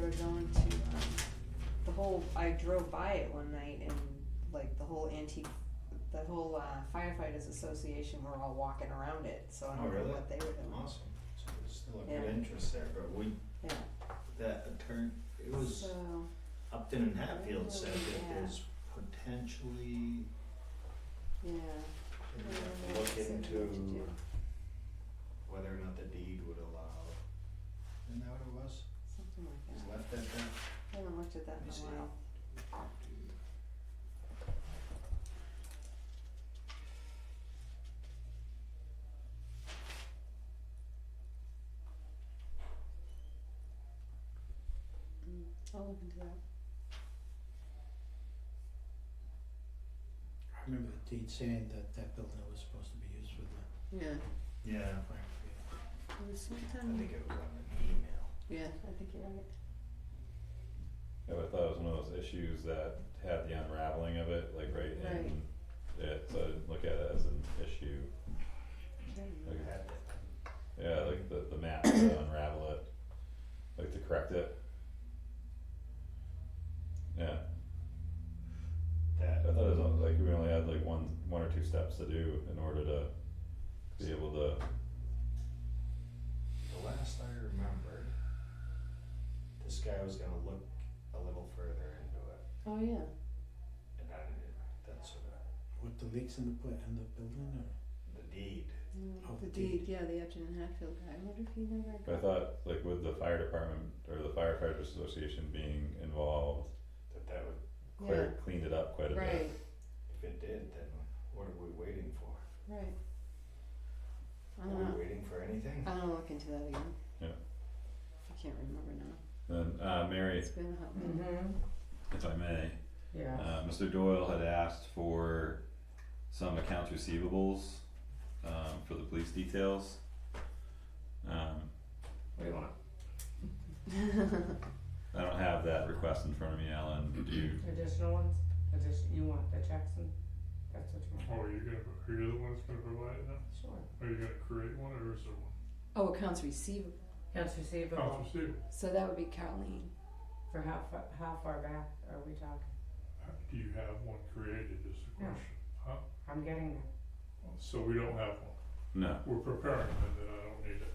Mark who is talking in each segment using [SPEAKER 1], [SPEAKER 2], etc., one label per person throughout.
[SPEAKER 1] going to, um, the whole, I drove by it one night and like the whole antique, the whole uh, firefighters association were all walking around it, so I
[SPEAKER 2] Oh,
[SPEAKER 1] don't know
[SPEAKER 2] really?
[SPEAKER 1] what they were doing.
[SPEAKER 2] Awesome, so there's still a
[SPEAKER 1] Yeah.
[SPEAKER 2] good interest there, but we,
[SPEAKER 1] Yeah.
[SPEAKER 2] that attorney, it was
[SPEAKER 1] So,
[SPEAKER 2] Upton and Hatfield said
[SPEAKER 1] Yeah.
[SPEAKER 2] that there's potentially,
[SPEAKER 1] yeah.
[SPEAKER 2] we
[SPEAKER 1] I
[SPEAKER 2] have
[SPEAKER 1] don't
[SPEAKER 2] to
[SPEAKER 1] know
[SPEAKER 2] look
[SPEAKER 1] what they
[SPEAKER 2] into
[SPEAKER 1] need to do.
[SPEAKER 2] whether or not the deed would allow. Isn't that what it was?
[SPEAKER 1] Something like
[SPEAKER 2] It was
[SPEAKER 1] that.
[SPEAKER 2] left at that?
[SPEAKER 1] I haven't looked at that
[SPEAKER 2] Let me
[SPEAKER 1] in
[SPEAKER 2] see.
[SPEAKER 1] a while. Mm, I'll look into that.
[SPEAKER 3] I remember the deed saying that that building was supposed to be used for the
[SPEAKER 1] Yeah,
[SPEAKER 2] Yeah,
[SPEAKER 3] fire brigade.
[SPEAKER 1] it was
[SPEAKER 2] I
[SPEAKER 1] sometime,
[SPEAKER 2] think it was on an email.
[SPEAKER 1] yeah, I think you're right.
[SPEAKER 4] Yeah, but I thought it was one of those issues that had the unraveling of it, like right
[SPEAKER 1] Right.
[SPEAKER 4] in it, so I didn't look at it as an issue.
[SPEAKER 1] Yeah.
[SPEAKER 4] Like,
[SPEAKER 2] I had that.
[SPEAKER 4] yeah, like the the map to unravel it, like to correct it. Yeah, I
[SPEAKER 2] That,
[SPEAKER 4] thought it was on- like we only had like one one or two steps to do in order to be able to,
[SPEAKER 2] the last I remembered, this guy was gonna look a little further into it,
[SPEAKER 1] Oh, yeah,
[SPEAKER 2] and I didn't, that's sort of
[SPEAKER 3] With the leaks in the pla- in the building or?
[SPEAKER 2] the deed.
[SPEAKER 1] Mm,
[SPEAKER 3] Oh,
[SPEAKER 1] the
[SPEAKER 3] the deed.
[SPEAKER 1] deed, yeah, the Upton and Hatfield guy, I wonder if he never
[SPEAKER 4] but I
[SPEAKER 1] got.
[SPEAKER 4] thought like with the fire department or the firefighters association being involved,
[SPEAKER 2] That that would,
[SPEAKER 4] clear cleaned it up quite a
[SPEAKER 1] Yeah,
[SPEAKER 4] bit.
[SPEAKER 1] right,
[SPEAKER 2] if it did, then what are we waiting for?
[SPEAKER 1] right. I don't
[SPEAKER 2] Are
[SPEAKER 1] know,
[SPEAKER 2] we waiting for
[SPEAKER 5] Uh,
[SPEAKER 2] anything?
[SPEAKER 1] I'll look into that again.
[SPEAKER 4] Yeah.
[SPEAKER 1] I can't remember now,
[SPEAKER 4] Then uh Mary,
[SPEAKER 1] it's been a hot minute.
[SPEAKER 5] Mm-hmm,
[SPEAKER 4] if I may,
[SPEAKER 5] yeah.
[SPEAKER 4] Uh, Mr. Doyle had asked for some accounts receivables, um, for the police details. Um,
[SPEAKER 5] What do you want?
[SPEAKER 4] I don't have that request in front of me, Alan, do you,
[SPEAKER 5] Additional ones? Addition, you want the checks and, that's what you
[SPEAKER 6] Oh,
[SPEAKER 5] want?
[SPEAKER 6] are you gonna, are you the one that's gonna provide them?
[SPEAKER 5] Sure.
[SPEAKER 6] Are you gonna create one or is there one?
[SPEAKER 1] Oh, accounts receivable,
[SPEAKER 5] Accounts receivable,
[SPEAKER 6] Accounts receivable.
[SPEAKER 1] so that would be Carleen.
[SPEAKER 5] for how fa- how far back are we talking?
[SPEAKER 6] Uh, Do you have one created is the
[SPEAKER 5] No.
[SPEAKER 6] question.
[SPEAKER 5] I'm getting there,
[SPEAKER 6] So we don't have one.
[SPEAKER 4] no,
[SPEAKER 6] We're preparing it and I don't need it.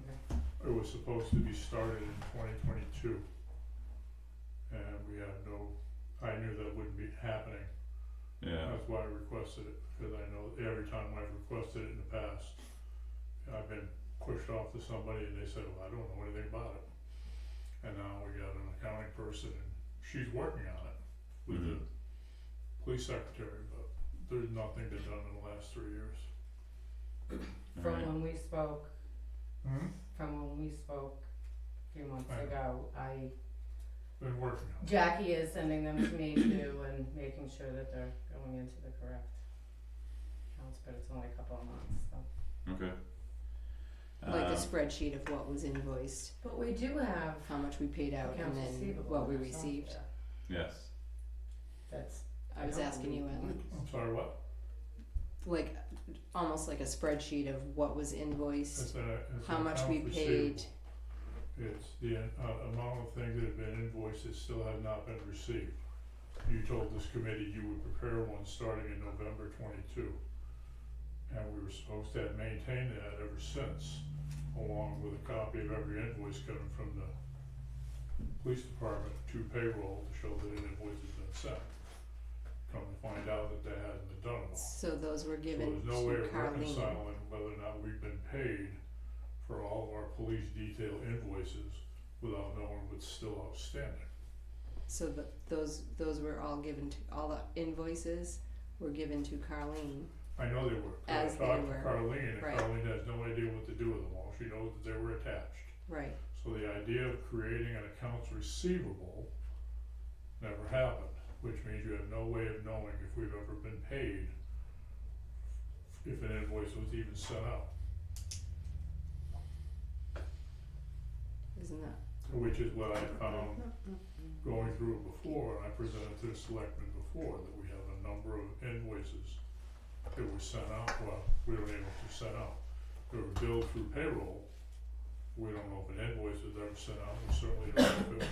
[SPEAKER 5] okay,
[SPEAKER 6] It was supposed to be started in twenty twenty-two. And we have no, I knew that wouldn't be happening.
[SPEAKER 4] yeah,
[SPEAKER 6] That's why I requested it, because I know every time I've requested it in the past, I've been pushed off to somebody and they said, well, I don't know anything about it. And now we got an accounting person and she's working on it with the
[SPEAKER 4] Mm-hmm.
[SPEAKER 6] police secretary, but there's nothing been done in the last three years.
[SPEAKER 5] from
[SPEAKER 4] Alright.
[SPEAKER 5] when we spoke,
[SPEAKER 6] Hmm?
[SPEAKER 5] from when we spoke a few months
[SPEAKER 6] Right.
[SPEAKER 5] ago, I,
[SPEAKER 6] Been working on it.
[SPEAKER 5] Jackie is sending them to me too and making sure that they're going into the correct accounts, but it's only a couple of months, so.
[SPEAKER 4] okay.
[SPEAKER 1] like a
[SPEAKER 4] Um,
[SPEAKER 1] spreadsheet of what was invoiced,
[SPEAKER 5] But we do have
[SPEAKER 1] how much we paid out, and
[SPEAKER 5] accounts
[SPEAKER 1] then
[SPEAKER 5] receivable
[SPEAKER 1] what we
[SPEAKER 5] in our software.
[SPEAKER 1] received.
[SPEAKER 4] yes,
[SPEAKER 5] That's,
[SPEAKER 1] I was
[SPEAKER 5] don't
[SPEAKER 1] asking you,
[SPEAKER 5] believe
[SPEAKER 1] Alan,
[SPEAKER 6] I'm sorry, what?
[SPEAKER 1] like, almost like a spreadsheet of what was invoiced,
[SPEAKER 6] It's a, it's
[SPEAKER 1] how
[SPEAKER 6] an
[SPEAKER 1] much
[SPEAKER 6] account
[SPEAKER 1] we
[SPEAKER 6] receivable.
[SPEAKER 1] paid.
[SPEAKER 6] It's the uh, amount of things that have been invoiced that still have not been received. You told this committee you would prepare one starting in November twenty-two. And we were supposed to have maintained that ever since, along with a copy of every invoice coming from the police department to payroll to show that an invoice has been sent. Come to find out that they hadn't been done it all.
[SPEAKER 1] So those were
[SPEAKER 6] So
[SPEAKER 1] given
[SPEAKER 6] there's no
[SPEAKER 1] to
[SPEAKER 6] way of
[SPEAKER 1] Carleen.
[SPEAKER 6] reconciling whether or not we've been paid for all of our police detail invoices without knowing what's still outstanding.
[SPEAKER 1] So the, those, those were all given to, all the invoices were given to Carleen.
[SPEAKER 6] I know they were, 'cause
[SPEAKER 1] As
[SPEAKER 6] I
[SPEAKER 1] they
[SPEAKER 6] talked to
[SPEAKER 1] were,
[SPEAKER 6] Carleen, and
[SPEAKER 1] right.
[SPEAKER 6] Carleen has no idea what to do with them all, she knows that they were attached.
[SPEAKER 1] Right,
[SPEAKER 6] So the idea of creating an accounts receivable never happened, which means you have no way of knowing if we've ever been paid, if an invoice was even sent out.
[SPEAKER 1] isn't that?
[SPEAKER 6] Which is what I found going through it before, and I presented to the selectmen before, that we have a number of invoices that were sent out, well, we were able to send out, they were billed through payroll. We don't know if an invoice was ever sent out, we certainly don't know if it was